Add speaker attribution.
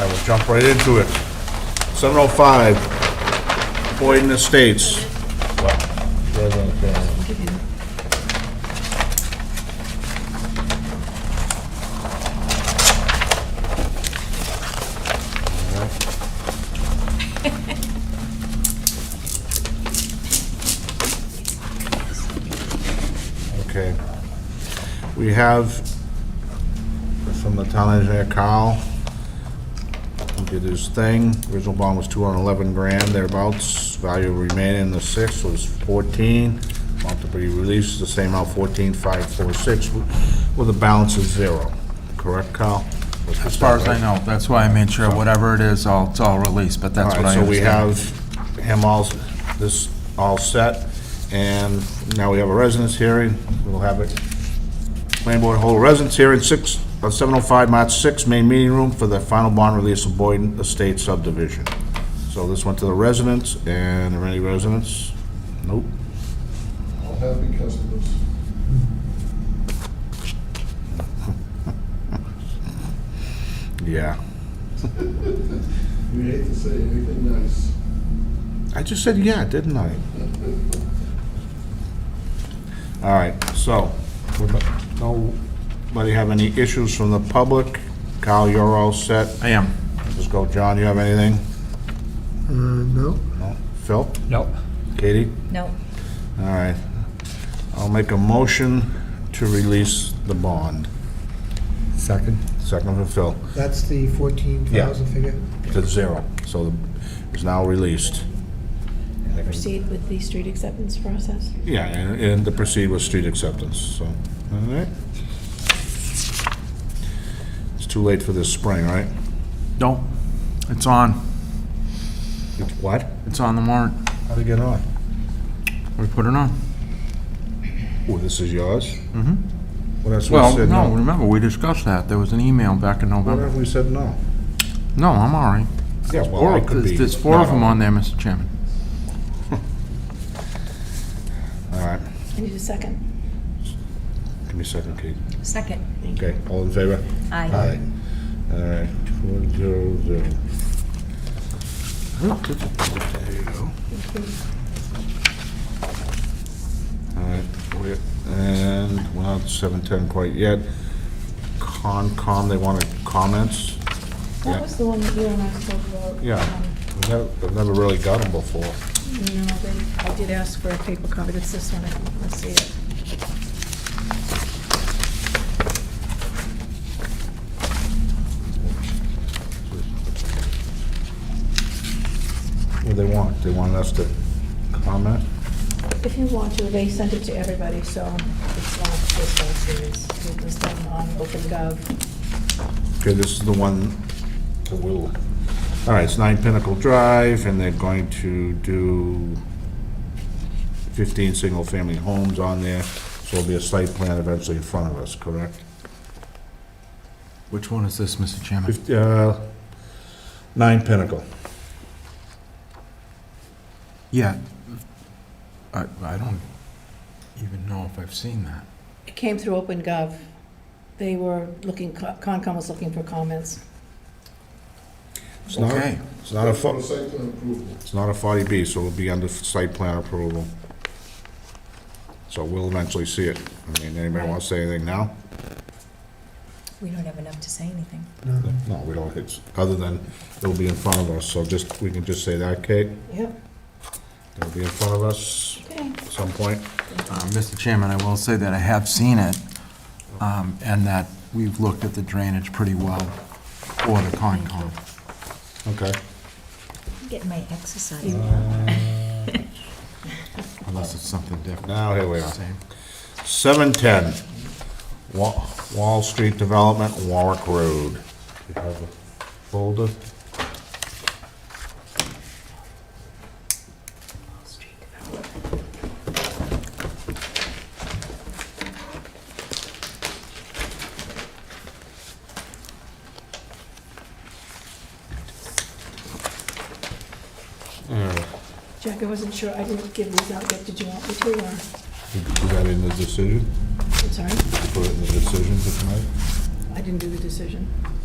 Speaker 1: we'll jump right into it. 705, Boyden Estates. Okay. We have from the town engineer Carl, who did his thing. Original bond was 211 grand thereabouts. Value remaining in the six was 14. Amount to be released, the same amount, 14,546, with a balance of zero. Correct, Carl?
Speaker 2: As far as I know, that's why I made sure, whatever it is, I'll, it's all released, but that's
Speaker 1: All
Speaker 2: what
Speaker 1: right,
Speaker 2: I
Speaker 1: so we
Speaker 2: understand.
Speaker 1: have him all, this all set, and now we have a residence hearing. We'll have it, planning board hold a residence hearing, six, uh, 705 March 6, main meeting room for the final bond release of Boyden Estate subdivision. So this went to the residents, and are there any residents? Nope.
Speaker 3: All happy customers.
Speaker 1: Yeah.
Speaker 3: You hate to say anything nice.
Speaker 1: I just said yeah, didn't I? All right, so, would nobody have any issues from the public? Kyle, you're all set.
Speaker 2: I am.
Speaker 1: Let's go, John, you have anything?
Speaker 3: Uh, no.
Speaker 1: No? Phil?
Speaker 2: Nope.
Speaker 1: Katie?
Speaker 4: No.
Speaker 1: All right. I'll make a motion to release the bond.
Speaker 2: Second.
Speaker 1: Second from Phil,
Speaker 5: That's the 14,000 figure?
Speaker 1: to zero, so it's now released.
Speaker 4: Proceed with the street acceptance process.
Speaker 1: Yeah, and, and to proceed with street acceptance, so, all right. It's too late for this spring, right?
Speaker 2: Nope. It's on.
Speaker 1: It's what?
Speaker 2: It's on the warrant.
Speaker 1: How'd it get on?
Speaker 2: We put it on.
Speaker 1: Oh, this is yours? Mm-hmm. Well, that's what I
Speaker 2: Well,
Speaker 1: said
Speaker 2: no,
Speaker 1: no.
Speaker 2: remember, we discussed that. There was an email back in
Speaker 1: What
Speaker 2: November.
Speaker 1: if we said no?
Speaker 2: No, I'm all right.
Speaker 1: Yeah, well,
Speaker 2: Four,
Speaker 1: I could be.
Speaker 2: there's there's four of them on there, Mr. Chairman.
Speaker 1: All right,
Speaker 4: I need a second.
Speaker 1: give me a second, Kate.
Speaker 4: Second.
Speaker 1: Okay, all in favor? Aye. All right, four zero zero. There you go. All right, we- and we're not seven ten quite yet. Concom, they wanted comments?
Speaker 4: That was the one that you and I spoke about.
Speaker 1: Yeah,
Speaker 4: um,
Speaker 1: I've never- I've never really got them before.
Speaker 4: No, they- I did ask for a paper copy. That's this one. I can see it.
Speaker 1: What do they want? They want us to comment?
Speaker 4: If you want to, they sent it to everybody, so it's not just us. It is, it was done on OpenGov.
Speaker 1: Okay, this is the one that will, all right, it's nine Pinnacle Drive, and they're going to do fifteen single-family homes on there, so there'll be a site plan eventually in front of us, correct?
Speaker 2: Which one is this, Mr. Chairman?
Speaker 1: Fif- uh, Nine Pinnacle.
Speaker 2: Yeah. I, I don't even know if I've seen that.
Speaker 4: It came through OpenGov. They were looking, Concom was looking for comments.
Speaker 1: It's not,
Speaker 2: Okay.
Speaker 1: it's not a, fo-
Speaker 3: For site plan approval.
Speaker 1: it's not a forty B, so it'll be under site plan approval. So we'll eventually see it. I mean, anybody want to say anything now?
Speaker 4: We don't have enough to say anything.
Speaker 1: No, we don't, it's, other than it'll be in front of us, so just, we can just say that, Kate,
Speaker 4: Yep,
Speaker 1: it'll be in front of us
Speaker 4: okay.
Speaker 1: at some point.
Speaker 2: Uh, Mr. Chairman, I will say that I have seen it, um, and that we've looked at the drainage pretty well for the Concom.
Speaker 1: Okay.
Speaker 4: Getting my exercise.
Speaker 2: Unless it's something different.
Speaker 1: Now, here we are.
Speaker 2: Same.
Speaker 1: Seven ten, Wa- Wall Street Development, Warwick Road. You have a folder?
Speaker 4: Jack, I wasn't sure, I didn't give these out yet, did you want me to, or,
Speaker 1: You put that in the decision?
Speaker 4: I'm sorry,
Speaker 1: Put it in the decision for tonight?
Speaker 4: I didn't do the decision.